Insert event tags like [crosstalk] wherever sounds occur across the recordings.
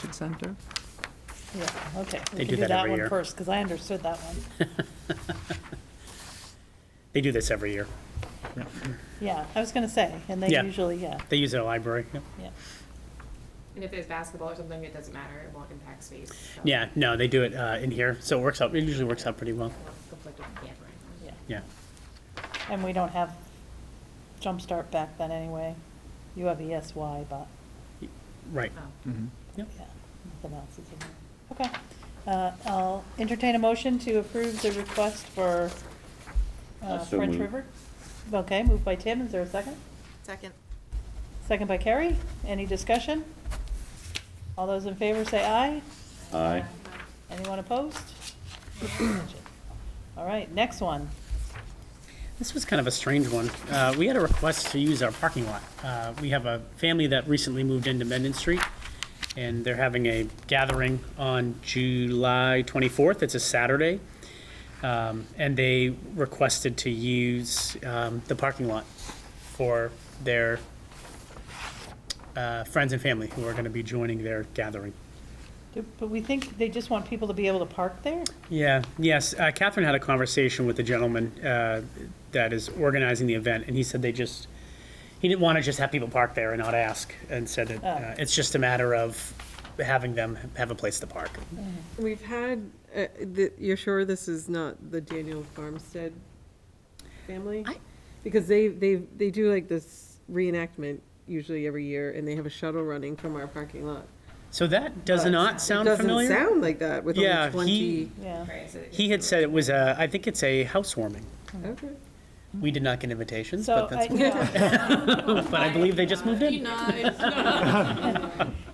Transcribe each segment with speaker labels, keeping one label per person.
Speaker 1: Convention Center.
Speaker 2: Yeah, okay.
Speaker 3: They
Speaker 2: We
Speaker 3: do
Speaker 2: can do
Speaker 3: that
Speaker 2: that
Speaker 3: every
Speaker 2: one
Speaker 3: year.
Speaker 2: first, because I understood that one.
Speaker 3: [laughs] They do this every year.
Speaker 2: Yeah, I was gonna say, and they
Speaker 3: Yeah.
Speaker 2: usually, yeah,
Speaker 3: They use their library. Yeah.
Speaker 2: yeah.
Speaker 4: And if there's basketball or something, it doesn't matter, it won't impact space. so
Speaker 3: Yeah, no, they do it uh, in here, so it works out, it usually works out pretty well.
Speaker 4: it won't Conflict with the camp or anything.
Speaker 2: Yeah.
Speaker 3: Yeah.
Speaker 2: And we don't have Jumpstart back then anyway. You have ESY, but,
Speaker 3: Right.
Speaker 4: Oh.
Speaker 5: Mm-hmm.
Speaker 2: yeah, nothing else is in there. Okay, uh, I'll entertain a motion to approve the request for uh,
Speaker 6: Uh, so
Speaker 2: French
Speaker 6: moved.
Speaker 2: River. Okay, moved by Tim, is there a second?
Speaker 7: Second.
Speaker 2: Second by Carrie, any discussion? All those in favor say aye.
Speaker 6: Aye.
Speaker 2: Anyone opposed? All right, next one.
Speaker 3: This was kind of a strange one. Uh, We had a request to use our parking lot. Uh, We have a family that recently moved into Mendon Street, and they're having a gathering on July 24th. It's a Saturday. Um, And they requested to use um, the parking lot for their uh, friends and family who are going to be joining their gathering.
Speaker 2: But we think they just want people to be able to park there?
Speaker 3: Yeah, yes. Uh, Catherine had a conversation with the gentleman uh, that is organizing the event, and he said they just, he didn't want to just have people park there and not ask, and said
Speaker 2: Oh.
Speaker 3: that uh, it's just a matter of having them have a place to park.
Speaker 8: We've had, uh, the- you're sure this is not the Daniel Farmstead family?
Speaker 3: I-
Speaker 8: Because they, they, they do like this reenactment usually every year, and they have a shuttle running from our parking lot.
Speaker 3: So that does not sound
Speaker 8: Doesn't
Speaker 3: familiar.
Speaker 8: sound like that with
Speaker 3: Yeah,
Speaker 8: only
Speaker 3: he-
Speaker 8: twenty.
Speaker 2: Yeah.
Speaker 4: Right, so it-
Speaker 3: He had said it was a, I think it's a housewarming.
Speaker 8: Okay.
Speaker 3: We did not get invitations,
Speaker 2: So
Speaker 3: but
Speaker 2: I,
Speaker 3: that's,
Speaker 2: yeah,
Speaker 3: [laughs] but I believe they just moved in.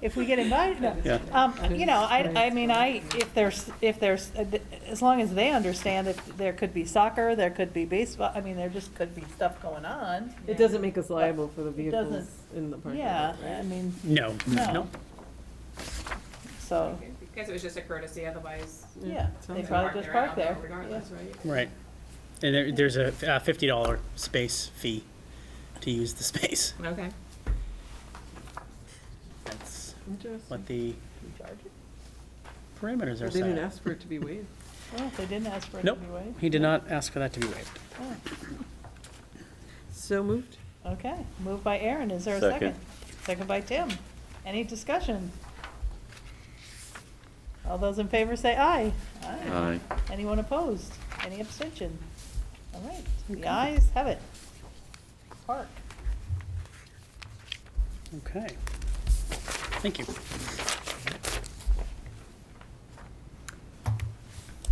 Speaker 2: if we get invited, no.
Speaker 3: Yeah.
Speaker 2: Um, you know, I, I mean, I, if there's, if there's, uh, as long as they understand that there could be soccer, there could be baseball, I mean, there just could be stuff going on.
Speaker 8: It doesn't make us liable for the
Speaker 2: It doesn't-
Speaker 8: vehicles in the parking lot.
Speaker 2: Yeah,
Speaker 8: right?
Speaker 2: I mean,
Speaker 3: No,
Speaker 2: No.
Speaker 3: no.
Speaker 2: so,
Speaker 4: Because it was just a courtesy, otherwise.
Speaker 2: yeah, they
Speaker 8: sounds
Speaker 2: probably just
Speaker 4: right
Speaker 2: park
Speaker 4: now
Speaker 2: there.
Speaker 4: Regardless, right?
Speaker 3: Right. And there, there's a uh, $50 space fee to use the space.
Speaker 4: Okay.
Speaker 3: That's
Speaker 8: Interesting.
Speaker 3: what the parameters are
Speaker 8: They didn't
Speaker 3: set.
Speaker 8: ask for it to be waived.
Speaker 2: Well, if they didn't ask for it to
Speaker 3: Nope,
Speaker 2: be waived.
Speaker 3: he did not ask for that to be waived.
Speaker 8: So moved.
Speaker 2: Okay, moved by Aaron, is there a second?
Speaker 6: Second.
Speaker 2: Second by Tim. Any discussion? All those in favor say aye.
Speaker 6: Aye.
Speaker 2: Anyone opposed? Any abstention? All right, the ayes have it. Park.
Speaker 3: Okay. Thank you.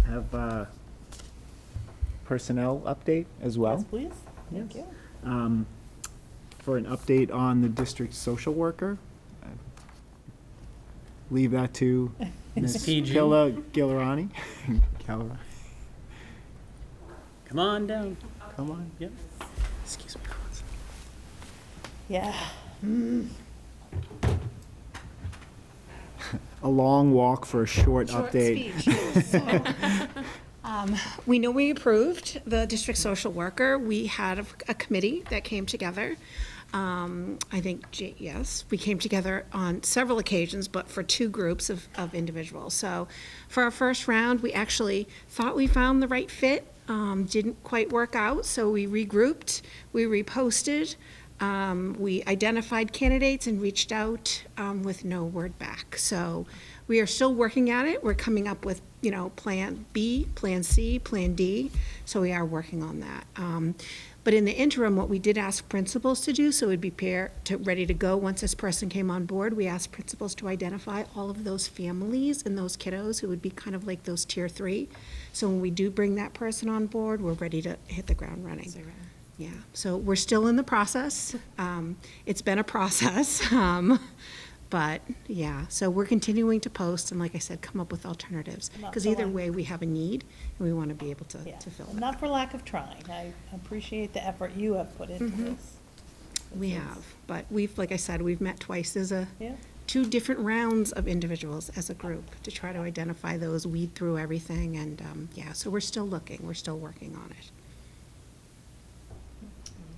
Speaker 5: have uh personnel update as
Speaker 2: Yes,
Speaker 5: well,
Speaker 2: please. Thank you.
Speaker 5: um, for an update on the district social worker. Leave that to Ms.
Speaker 3: PG.
Speaker 5: Killa Gilirani. Gilirani,
Speaker 3: Come on down.
Speaker 5: come on.
Speaker 3: Yep. Excuse me.
Speaker 2: Yeah,
Speaker 5: A long walk for a short update.
Speaker 9: Um, We know we approved the district social worker. We had a- a committee that came together. Um, I think, J- yes, we came together on several occasions, but for two groups of, of individuals. So for our first round, we actually thought we found the right fit, um, didn't quite work out, so we regrouped, we reposted, um, we identified candidates and reached out um, with no word back. So we are still working at it. We're coming up with, you know, Plan B, Plan C, Plan D. So we are working on that. Um, but in the interim, what we did ask principals to do, so it'd be pair to ready to go once this person came on board. We asked principals to identify all of those families and those kiddos who would be kind of like those tier three. So when we do bring that person on board, we're ready to hit the ground running. Yeah, so we're still in the process. Um, It's been a process, [laughs] um, but yeah, so we're continuing to post and like I said, come up with alternatives.
Speaker 2: Not
Speaker 9: Because
Speaker 2: so
Speaker 9: either
Speaker 2: long.
Speaker 9: way, we have a need and we want to be able to
Speaker 2: yeah.
Speaker 9: to fill
Speaker 2: And
Speaker 9: it.
Speaker 2: Not for lack of trying. I appreciate the effort you have put into this.
Speaker 9: Mm-hmm. We have, but we've, like I said, we've met twice as a,
Speaker 2: Yeah.
Speaker 9: two different rounds of individuals as a group to try to identify those, weed through everything and um, yeah, so we're still looking, we're still working on it.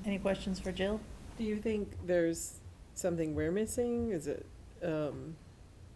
Speaker 2: Any questions for Jill?
Speaker 8: Do you think there's something we're missing? Is it, um,